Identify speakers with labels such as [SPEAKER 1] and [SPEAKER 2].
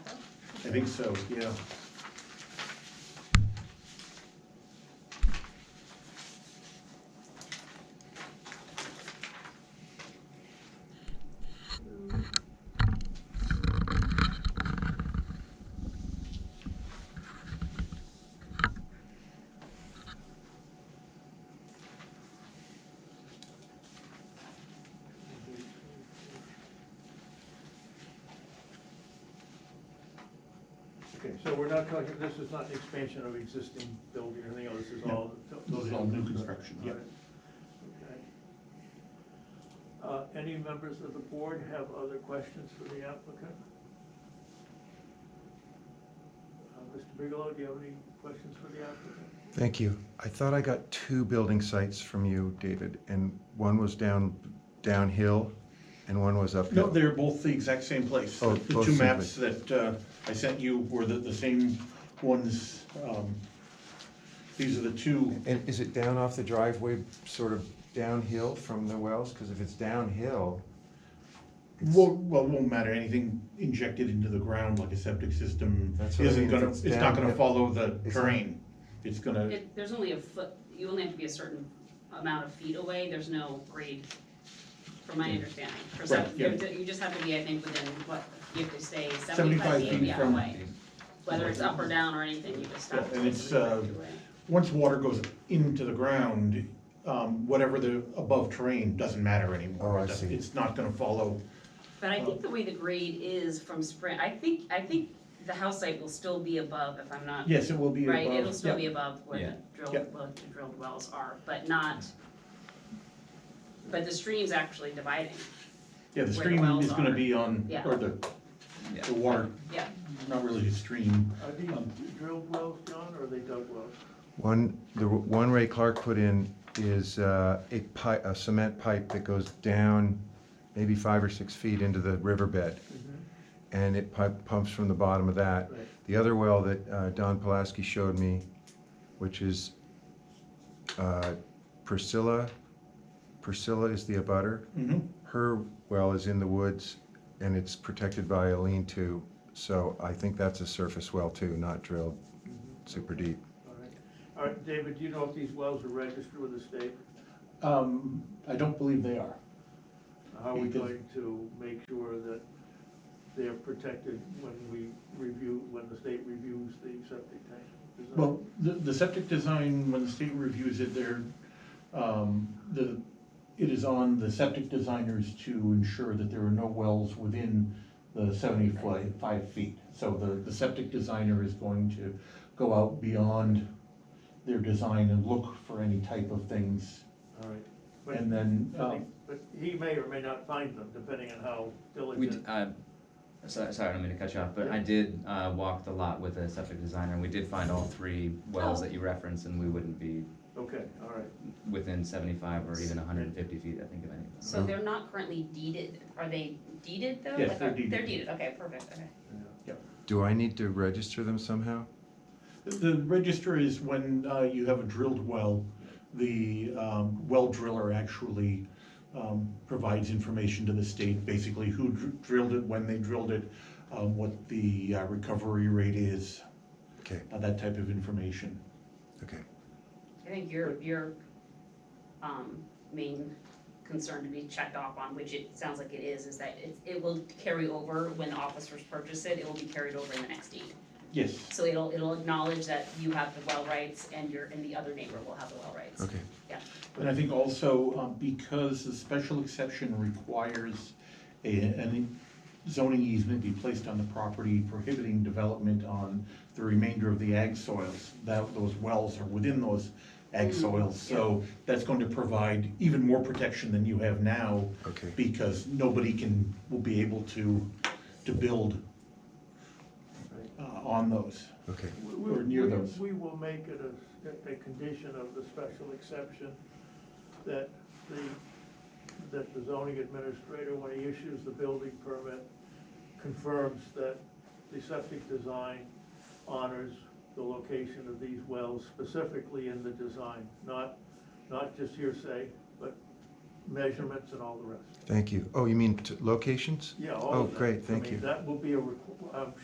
[SPEAKER 1] I think so, yeah.
[SPEAKER 2] Okay, so we're not talking, this is not the expansion of existing building or anything else, this is
[SPEAKER 1] No.
[SPEAKER 2] all.
[SPEAKER 1] This is all new construction.
[SPEAKER 2] All right. Okay. Uh, Any members of the board have other questions for the applicant? Uh, Mr. Bigelow, do you have any questions for the applicant?
[SPEAKER 3] Thank you. I thought I got two building sites from you, David, and one was down, downhill and one was
[SPEAKER 1] No,
[SPEAKER 3] uphill.
[SPEAKER 1] they're both the exact same place.
[SPEAKER 3] Oh,
[SPEAKER 1] The
[SPEAKER 3] both
[SPEAKER 1] two
[SPEAKER 3] same
[SPEAKER 1] maps that uh, I sent you were the, the same ones. um, These are the two,
[SPEAKER 3] And is it down off the driveway, sort of downhill from the wells? Because if it's downhill, it's-
[SPEAKER 1] well, well, won't matter, anything injected into the ground like a septic system
[SPEAKER 3] That's what I
[SPEAKER 1] isn't
[SPEAKER 3] mean, if
[SPEAKER 1] gonna,
[SPEAKER 3] it's
[SPEAKER 1] it's not gonna
[SPEAKER 3] downhill.
[SPEAKER 1] follow the
[SPEAKER 3] It's not-
[SPEAKER 1] terrain. It's gonna,
[SPEAKER 4] It, there's only a foot, you only have to be a certain amount of feet away, there's no grade, from my understanding. For some,
[SPEAKER 1] Right, yeah.
[SPEAKER 4] you you just have to be, I think, within, what, you have to stay seventy-five
[SPEAKER 1] seventy-five
[SPEAKER 4] feet
[SPEAKER 1] feet
[SPEAKER 4] yeah,
[SPEAKER 1] from.
[SPEAKER 4] away. Whether it's up or down or anything, you just
[SPEAKER 1] Yeah,
[SPEAKER 4] have to.
[SPEAKER 1] and
[SPEAKER 4] stay
[SPEAKER 1] it's,
[SPEAKER 4] 75 feet
[SPEAKER 1] uh,
[SPEAKER 4] away.
[SPEAKER 1] Once water goes into the ground, um, whatever the above terrain doesn't matter anymore.
[SPEAKER 3] Oh, I
[SPEAKER 1] It doesn't-
[SPEAKER 3] see.
[SPEAKER 1] It's not gonna follow,
[SPEAKER 4] But I think the way the grade is from spring, I think, I think the house site will still be above if I'm not,
[SPEAKER 1] yes, it will be above.
[SPEAKER 4] right? It'll still
[SPEAKER 1] yeah.
[SPEAKER 4] be above where
[SPEAKER 5] Yeah.
[SPEAKER 4] the
[SPEAKER 1] Yeah.
[SPEAKER 4] drilled, what the drilled wells are, but not, but the stream's actually dividing,
[SPEAKER 1] Yeah, the
[SPEAKER 4] where the
[SPEAKER 1] stream
[SPEAKER 4] wells
[SPEAKER 1] is gonna
[SPEAKER 4] are.
[SPEAKER 1] be on,
[SPEAKER 4] Yeah.
[SPEAKER 1] or the,
[SPEAKER 5] Yeah.
[SPEAKER 1] the water,
[SPEAKER 4] yeah.
[SPEAKER 1] not really a stream.
[SPEAKER 2] Are
[SPEAKER 1] Um,
[SPEAKER 2] these drilled wells, John, or are they dug wells?
[SPEAKER 3] one, the one Ray Clark put in is uh, a pipe, a cement pipe that goes down maybe five or six feet into the riverbed. And it pipe pumps from the bottom of that.
[SPEAKER 2] Right.
[SPEAKER 3] The other well that uh, Don Pulaski showed me, which is uh, Priscilla, Priscilla is the abutter.
[SPEAKER 1] Mhm.
[SPEAKER 3] Her well is in the woods and it's protected by a lean-to, so I think that's a surface well too, not drilled super deep.
[SPEAKER 2] All right. All right, David, do you know if these wells are registered with the state?
[SPEAKER 1] Um, I don't believe they are.
[SPEAKER 2] How are we
[SPEAKER 1] Because-
[SPEAKER 2] going to make sure that they're protected when we review, when the state reviews the septic tank? design?
[SPEAKER 1] Well, the, the septic design, when the state reviews it, they're, um, the, it is on the septic designers to ensure that there are no wells within the seventy-five feet. So the, the septic designer is going to go out beyond their design and look for any type of things.
[SPEAKER 2] All right. But-
[SPEAKER 1] And then, um,
[SPEAKER 2] But he may or may not find them, depending on how
[SPEAKER 5] We,
[SPEAKER 2] diligent.
[SPEAKER 5] d- uh, sorry, sorry, I don't mean to cut you off, but I did, uh, walk the lot with a septic designer, and we did find all three wells
[SPEAKER 4] Oh.
[SPEAKER 5] that you referenced, and we wouldn't be
[SPEAKER 2] Okay, all right.
[SPEAKER 5] within seventy-five or even hundred and fifty feet, I think, of any of them.
[SPEAKER 4] So they're not currently deeded, are they deeded though?
[SPEAKER 1] Yes,
[SPEAKER 4] Like,
[SPEAKER 1] they're
[SPEAKER 4] are- They're
[SPEAKER 1] deeded.
[SPEAKER 4] deeded, okay, perfect, okay.
[SPEAKER 3] Do I need to register them somehow?
[SPEAKER 1] The register is when uh, you have a drilled well, the um, well driller actually um, provides information to the state, basically who dr- drilled it, when they drilled it, um, what the uh, recovery rate is,
[SPEAKER 3] Okay,
[SPEAKER 1] uh, that type of information.
[SPEAKER 3] okay.
[SPEAKER 4] I think your, your, um, main concern to be checked off on, which it sounds like it is, is that it, it will carry over when officers purchase it, it will be carried over in the next deed.
[SPEAKER 1] Yes,
[SPEAKER 4] So it'll, it'll acknowledge that you have the well rights and your, and the other neighbor will have the well rights.
[SPEAKER 3] Okay,
[SPEAKER 1] and I think also um, because the special exception requires a, an zoning easement be placed on the property prohibiting development on the remainder of the ag soils. That, those wells are within those ag soils, so that's going to provide even more protection than you have now
[SPEAKER 3] okay.
[SPEAKER 1] because nobody can, will be able to, to build uh, on those.
[SPEAKER 3] Okay,
[SPEAKER 2] We-
[SPEAKER 1] Or
[SPEAKER 2] we-
[SPEAKER 1] near
[SPEAKER 2] we-
[SPEAKER 1] those.
[SPEAKER 2] We will make it a, a condition of the special exception that the, that the zoning administrator, when he issues the building permit, confirms that the septic design honors the location of these wells specifically in the design, not, not just hearsay, but measurements and all the rest.
[SPEAKER 3] thank you. Oh, you mean t- locations?
[SPEAKER 2] Yeah, all of
[SPEAKER 3] Oh,
[SPEAKER 2] that.
[SPEAKER 3] great,
[SPEAKER 2] I
[SPEAKER 3] thank
[SPEAKER 2] mean,
[SPEAKER 3] you.
[SPEAKER 2] That will be a, requ- I'm